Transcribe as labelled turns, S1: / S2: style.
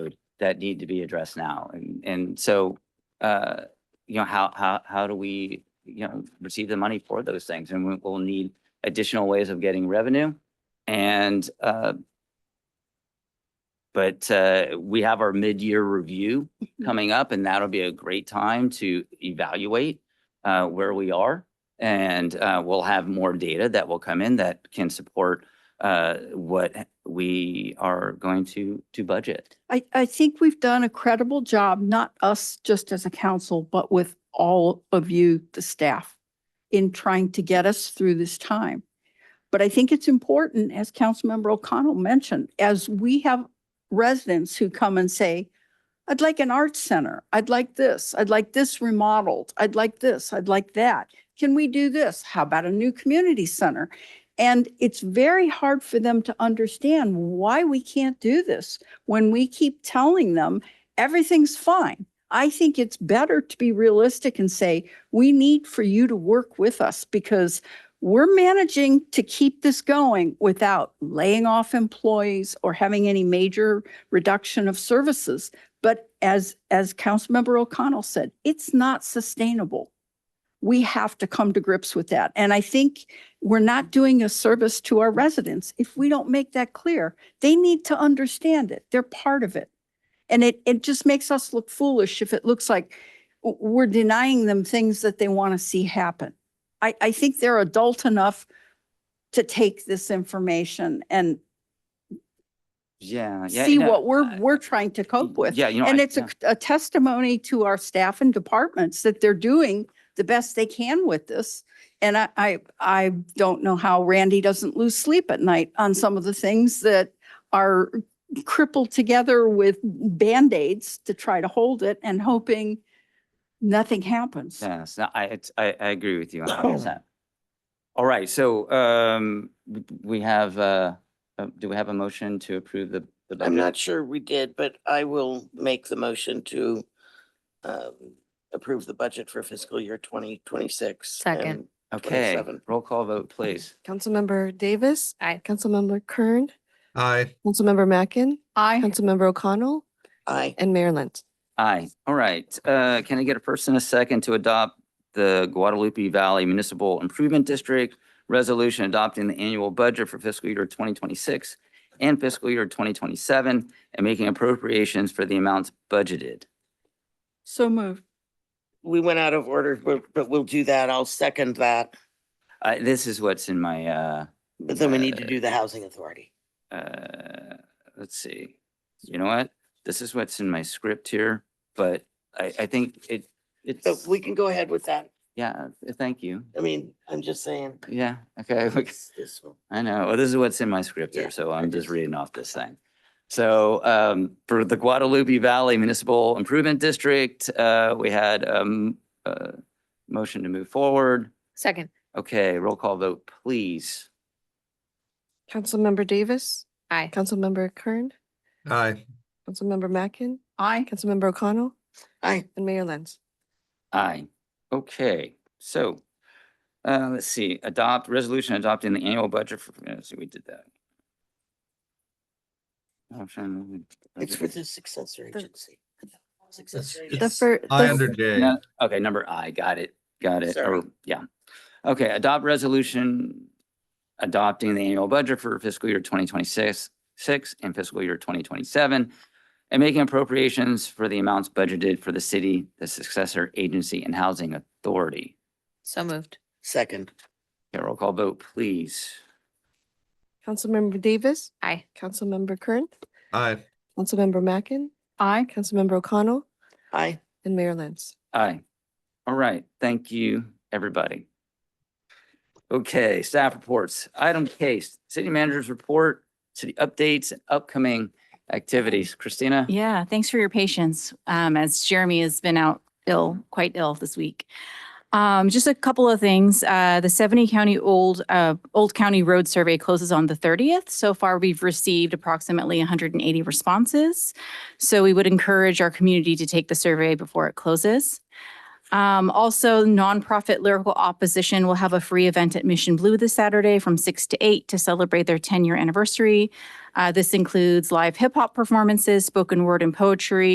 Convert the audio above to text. S1: that need to be addressed now. And, and so, uh, you know, how, how, how do we, you know, receive the money for those things? And we- we'll need additional ways of getting revenue. And, uh, but, uh, we have our mid-year review coming up and that'll be a great time to evaluate, uh, where we are. And, uh, we'll have more data that will come in that can support, uh, what we are going to, to budget.
S2: I, I think we've done a credible job, not us just as a council, but with all of you, the staff, in trying to get us through this time. But I think it's important, as Councilmember O'Connell mentioned, as we have residents who come and say, I'd like an arts center, I'd like this, I'd like this remodeled, I'd like this, I'd like that. Can we do this? How about a new community center? And it's very hard for them to understand why we can't do this when we keep telling them everything's fine. I think it's better to be realistic and say, we need for you to work with us because we're managing to keep this going without laying off employees or having any major reduction of services. But as, as Councilmember O'Connell said, it's not sustainable. We have to come to grips with that. And I think we're not doing a service to our residents if we don't make that clear they need to understand it. They're part of it. And it, it just makes us look foolish if it looks like w- we're denying them things that they want to see happen. I, I think they're adult enough to take this information and
S1: Uh, Yeah. yeah,
S2: see
S1: no,
S2: what we're,
S1: I-
S2: we're trying to cope with.
S1: Yeah, you know.
S2: And
S1: I-
S2: it's a,
S1: yeah.
S2: a testimony to our staff and departments that they're doing the best they can with this. And I, I, I don't know how Randy doesn't lose sleep at night on some of the things that are crippled together with Band-Aids to try to hold it and hoping nothing happens.
S1: Yes, no, I, it's, I, I agree with you a hundred percent. All right, so, um, w- we have, uh, uh, do we have a motion to approve the? the
S3: I'm
S1: budget?
S3: not sure we did, but I will make the motion to um, approve the budget for fiscal year twenty twenty-six.
S4: Second.
S1: Okay,
S3: 27.
S1: roll call vote, please.
S5: Councilmember Davis. Aye. Councilmember Kern.
S6: Aye,
S5: Councilmember Mackin.
S2: I,
S5: Councilmember O'Connell
S3: I,
S5: and Mayor Lent.
S1: Aye, all right, uh, can I get a first and a second to adopt the Guadalupe Valley Municipal Improvement District resolution adopting the annual budget for fiscal year twenty twenty-six and fiscal year twenty twenty-seven and making appropriations for the amounts budgeted?
S2: so moved.
S3: we went out of order, but, but we'll do that. I'll second that.
S1: Uh, this is what's in my, uh,
S3: But then we need to
S1: Uh,
S3: do the housing authority.
S1: uh, let's see. You know what? This is what's in my script here, but I, I think it,
S3: So
S1: it's,
S3: we can go ahead with that.
S1: yeah, thank you.
S3: I mean, I'm just saying.
S1: Yeah, okay. we c-
S3: it's this one.
S1: I know. Well, this is what's in my script
S3: Yeah,
S1: here, so
S3: I
S1: I'm just
S3: just-
S1: reading off this thing. So um, for the Guadalupe Valley Municipal Improvement District, uh, we had um, a motion to move forward.
S4: Second,
S1: Okay, roll call vote, please.
S5: Councilmember Davis.
S4: aye.
S5: Councilmember Kern.
S6: aye,
S5: Councilmember Mackin.
S2: I,
S5: Councilmember O'Connell
S3: I,
S5: and Mayor Lent.
S1: Aye. Okay, so, uh, let's see, adopt, resolution adopting the annual budget for, let's see, we did that. Motion,
S3: it's for
S1: budget.
S3: the successor agency. Successor
S6: It's-
S5: The
S3: agency.
S5: fir-
S6: I
S5: the-
S6: under J,
S1: No, Okay, number I, got it, got it,
S3: Sorry.
S1: or, yeah. Okay, adopt resolution adopting the annual budget for fiscal year twenty twenty-six, six and fiscal year twenty twenty-seven and making appropriations for the amounts budgeted for the city, the successor agency and housing authority.
S4: So moved.
S3: Second,
S1: Okay, roll call vote, please.
S5: Councilmember Davis.
S4: Aye.
S5: Councilmember Kern.
S6: aye,
S5: Councilmember Mackin.
S2: I,
S5: Councilmember O'Connell
S3: I,
S5: and Mayor Lent.
S1: Aye. All right, thank you, everybody. Okay, staff reports. Item case, city manager's report, city updates, and upcoming activities. Christina?
S7: Yeah, thanks for your patience, um, as Jeremy has been out ill, quite ill this week. Um, just a couple of things. Uh, the seventy county old, uh, Old County Road Survey closes on the thirtieth. So far, we've received approximately hundred and eighty responses. So we would encourage our community to take the survey before it closes. Um, also, nonprofit Lyrical Opposition will have a free event at Mission Blue this Saturday from six to eight to celebrate their ten-year anniversary. Uh, this includes live hip-hop performances, spoken word and poetry,